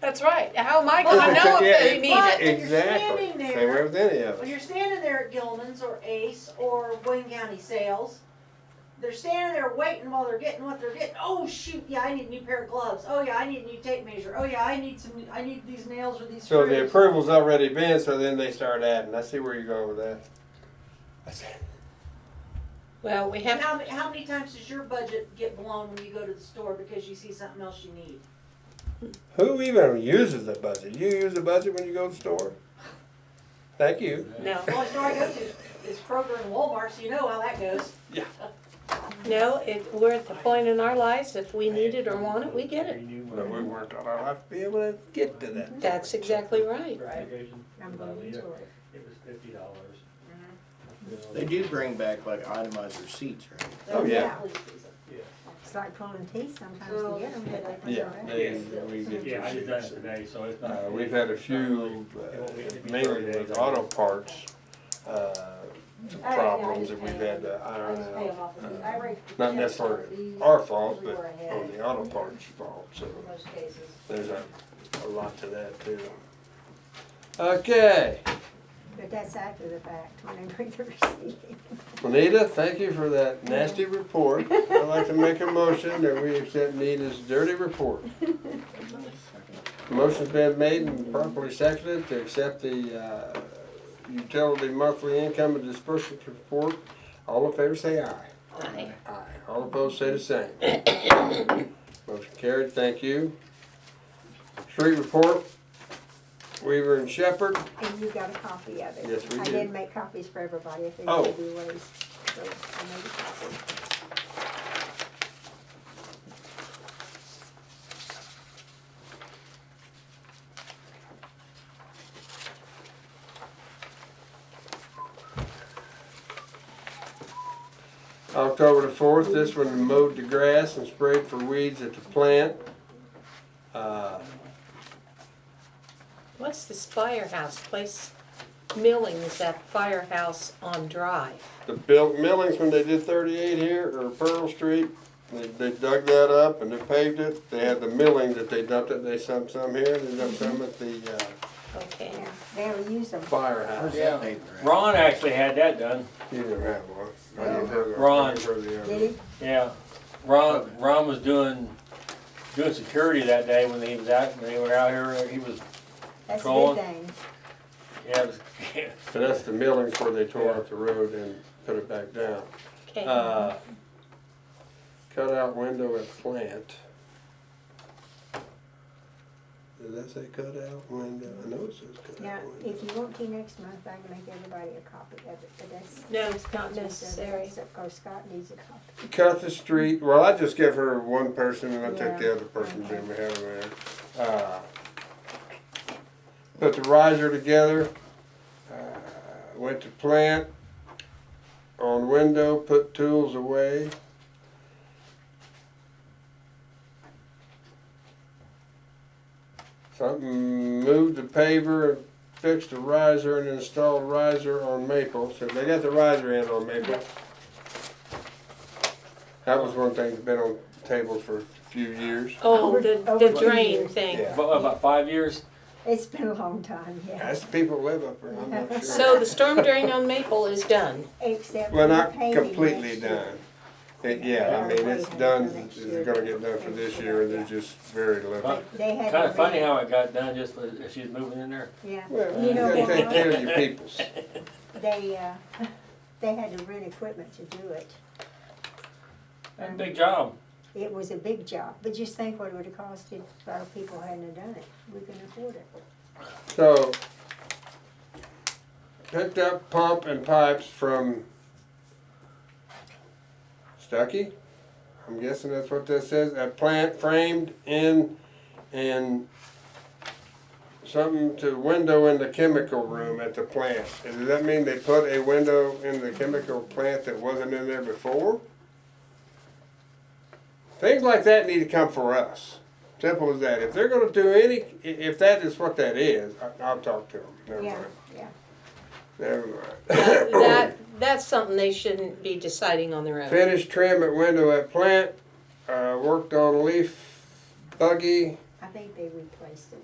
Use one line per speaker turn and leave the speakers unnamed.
That's right. How am I
Well,
gonna
it's
know if
a- yeah,
they
it-
need
well,
it?
if you're
Exactly.
standing
Same
there-
way with any of
When you're
us.
standing there at Gilman's or Ace or Wayne County Sales, they're standing there waiting while they're getting what they're getting. Oh shoot, yeah, I need a new pair of gloves. Oh yeah, I need a new tape measure. Oh yeah, I need some. I need these nails or these
So
screws.
the approval's already been, so then they start adding. I see where you're going with that. I said,
Well, we
And
have,
how, many- how many times does your budget get blown when you go to the store because you see something else you need?
Who even uses the budget? You use the budget when you go to the store? Thank you.
no,
The only store I go to is Kroger and Walmart, so you know how that goes.
no, it, we're at the point in our lives, if we need it or want it, we get it.
But we weren't on our life to be able to get to that.
That's exactly right.
I'm going to it.
was fifty dollars.
They do bring back like itemized receipts, right?
Oh, yeah.
Police season.
It's like pulling teeth sometimes
Oh,
to get them, but they.
Yeah, they, we get
Yeah, I just done it
to
today, so it's
see.
not.
Uh, we've had a few, uh, mainly with auto parts, uh, some
Oh,
problems that we've had to
I
iron
just pay them
out.
off. I rate the
Not
checks
necessarily
off
our fault, but
Where I had
on the auto parts fault, so
in most cases.
there's a, a lot to that too. Okay,
But that's after the fact, when they bring the receipt.
Anita, thank you for that nasty report. I'd like to make a motion that we accept Nita's dirty report. Motion's been made and properly seconded to accept the uh, utility monthly income and disbursement report. All in favor say aye.
Aye.
Aye. All opposed say the same. Motion carried, thank you. Street report, Weaver and Shepherd.
And you got a copy of it.
Yes, we
I
did.
did make copies for everybody if they
Oh.
gave you ways. So I made a copy.
October the fourth, this one mowed the grass and sprayed for weeds at the plant. Uh,
What's this firehouse place? Milling is that firehouse on Drive.
The built millings, when they did thirty-eight here, or Pearl Street, they, they dug that up and they paved it. They had the milling that they dumped it, they dumped some here, they dumped some at the, uh,
Okay,
Yeah, they'll use them.
firehouse.
That paper, right?
Ron actually had that done,
You didn't have one. I didn't have one.
Ron.
I didn't have the other.
Did he?
yeah. Ron, Ron was doing, doing security that day when he was out, when they were out here, he was,
That's a
Colin.
good thing.
yeah, it was,
So that's the millings where they tore up the road and put it back down.
okay.
Uh, Cutout window at plant. Did that say cutout window? I know it says
Now,
cutout window.
if you want to next month, I can make everybody a copy of it, but that's.
No, it's not
that's just-
necessary.
Of course, Scott needs a copy.
cut the street. Well, I just give her one person and I took the
Yeah.
other person's in we have her there. Uh, put the riser together. Uh, went to plant on window. Put tools away. Something moved the paver, fixed the riser, and installed riser on Maple. So they got the riser in on Maple. That was one thing that's been on the table for a few years.
Oh, the, the
Over-
drain
over-
thing.
Yeah.
about, about five years.
It's been a long time, yeah.
That's the people who live up there, I'm not sure.
So the storm drain on Maple is done.
Except.
Well,
for the
not
painting
completely
next year.
done. It, yeah, I mean, it's done, it's gonna get done for this year, and they're just very little.
They- They had.
Kinda
it
funny
ready.
how it got done just when she was moving in there.
Yeah,
Well,
You
you
know
gotta take
what?
care of your peoples.
they, uh, they had to rent equipment to do it. Mm.
That's a big job.
It was a big job, but just think what it would have cost if our people hadn't have done it. We couldn't afford it.
So, picked up pump and pipes from Stuckey. I'm guessing that's what that says. A plant framed in and something to window in the chemical room at the plant. And Does that mean they put a window in the chemical plant that wasn't in there before? Things like that need to come for us. Simple as that. If they're gonna do any, i- if that is what that is, I- I'll talk to them. Never
Yeah,
mind.
yeah.
Never mind.
That, that's something they shouldn't be deciding on their own.
Finished trim at window at plant, uh, worked on leaf buggy.
I think they replaced it.